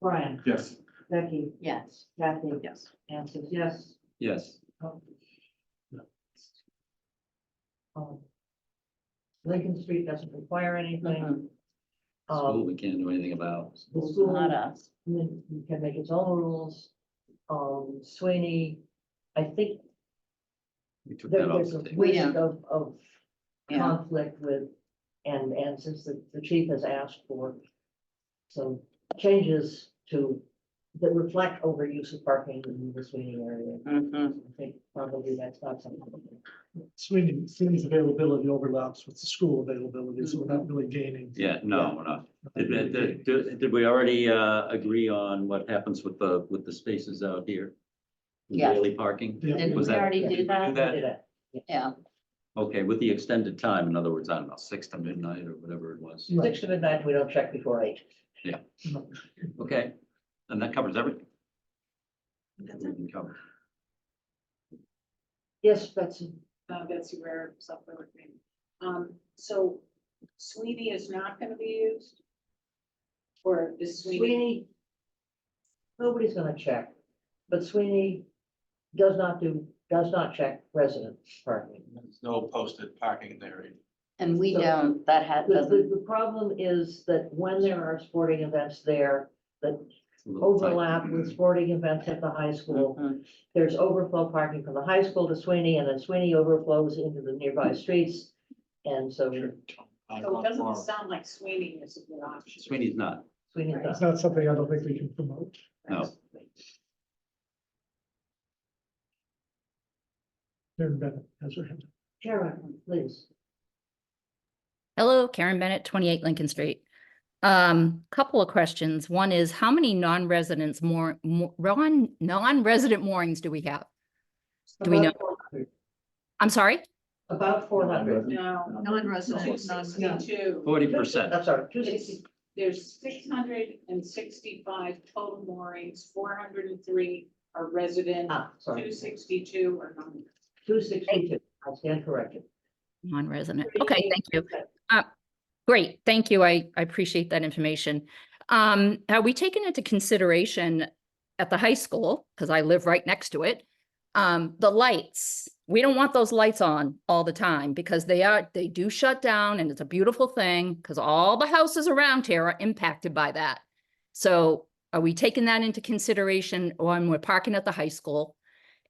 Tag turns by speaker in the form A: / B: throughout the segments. A: Brian,
B: Yes.
A: Becky,
C: Yes.
A: Kathy,
C: Yes.
A: Anne says yes. Oh.
D: Yes.
A: Um, Lincoln Street doesn't require anything.
D: School,
A: Um,
D: we can't do anything about.
A: the
C: Not
A: school
C: us.
A: you can make its own rules. Um, Sweeney, I think
D: We took
A: there
D: that off
A: was a
D: the table.
C: We
A: risk
C: don't.
A: of, of
C: Yeah.
A: conflict with, and, and since the, the chief has asked for some changes to, that reflect overuse of parking in the Sweeney area,
C: Mhm.
A: I think probably that's not something.
E: Sweeney, Sweeney's availability overlaps with the school availability, so we're not really gaining.
D: Yeah, no, we're not.
E: Not
D: Did,
E: really
D: did,
E: gaining.
D: did- did we already, uh, agree on what happens with the, with the spaces out here? The
C: Yes.
D: Daily parking?
E: Yeah.
C: Did we
D: Was that-
C: already do
D: Do
C: that?
D: that?
A: Did it.
C: Yeah.
D: Okay, with the extended time, in other words, I don't know, six to midnight or whatever it was.
E: Right.
A: Six to midnight, we don't check before eight.
D: Okay, and that covers everything. We can cover.
A: Yes, Betsy.
F: uh, Betsy Ware, software with me. Um, so Sweeney is not gonna be used? Or is Sweeney?
A: Sweeney, nobody's gonna check, but Sweeney does not do, does not check resident parking.
B: There's no posted parking there.
C: And we
A: So-
C: don't, that had,
A: The, the,
C: doesn't,
A: the problem is that when there are sporting events there,
D: It's a little tight.
A: overlap with sporting events at the high school,
C: Mhm.
A: there's overflow parking from the high school to Sweeney, and then Sweeney overflows into the nearby streets. And so
F: So it doesn't sound like Sweeney is a good option.
D: Sweeney's not.
A: Sweeney
E: It's
A: does.
E: not something I don't think we can promote.
D: No.
E: Karen Bennett has her hand. up.
A: Sharon, please.
G: Hello, Karen Bennett, 28 Lincoln Street. Um, Couple of questions. One is, how many non-residents more, mo- non- non-resident moorings do we have? Do we know?
A: About 400.
G: I'm sorry?
A: About four hundred.
F: No.
C: Non-resident, non-resident.
F: Sixty-two.
D: Forty percent.
A: I'm sorry, two
F: It's-
A: sixty,
F: There's six hundred and sixty-five total moorings, four hundred and three are resident,
A: ah,
F: two
A: sorry,
F: sixty-two are non.
A: two sixty-two, I stand corrected.
G: Non-resident.
F: Pretty
G: Okay,
F: easy.
G: thank you. Uh, Great, thank you. I, I appreciate that information. Um, Have we taken into consideration at the high school, because I live right next to it, um, the lights? We don't want those lights on all the time because they are, they do shut down and it's a beautiful thing because all the houses around here are impacted by that. So are we taking that into consideration when we're parking at the high school?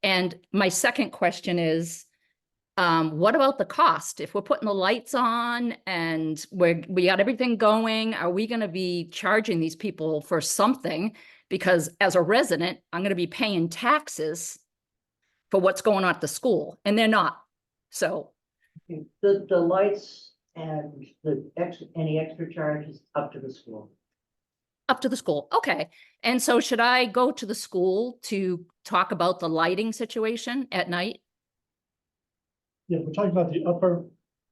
G: And my second question is, um, what about the cost? If we're putting the lights on and we're, we got everything going, are we gonna be charging these people for something? Because as a resident, I'm gonna be paying taxes for what's going on at the school, and they're not. So,
A: The, the lights and the ex, any extra charges up to the school.
G: up to the school, okay. And so should I go to the school to talk about the lighting situation at night?
E: Yeah, we're talking about the upper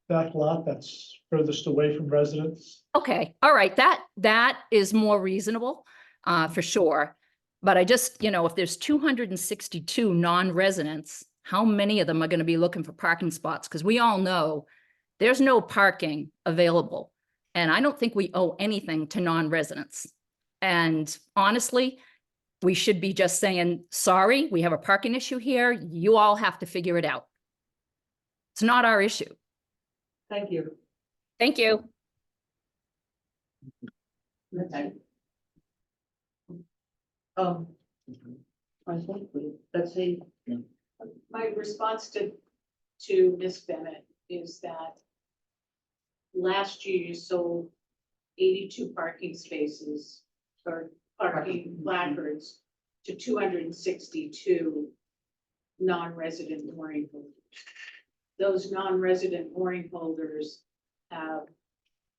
E: back lot that's furthest away from residents.
G: Okay, all right, that, that is more reasonable, uh, for sure. But I just, you know, if there's two hundred and sixty-two non-residents, how many of them are gonna be looking for parking spots? Because we all know there's no parking available. And I don't think we owe anything to non-residents. And honestly, we should be just saying, sorry, we have a parking issue here. You all have to figure it out. It's not our issue.
A: Thank you.
G: Thank you.
A: Okay. Um, I think we, let's see,
F: My response to, to Ms. Bennett is that last year you sold eighty-two parking spaces or parking placards to two hundred and sixty-two non-resident mooring holders. Those non-resident mooring holders have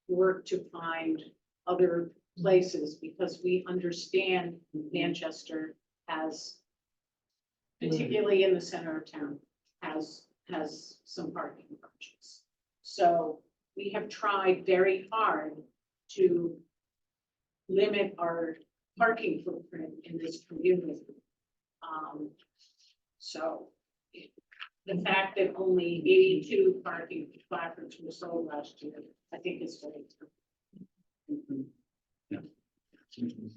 F: worked to find other places because we understand Manchester has particularly in the center of town, has, has some parking approaches. So we have tried very hard to limit our parking footprint in this community. Um, so the fact that only eighty-two parking placards were sold last year, I think is very.
B: sound.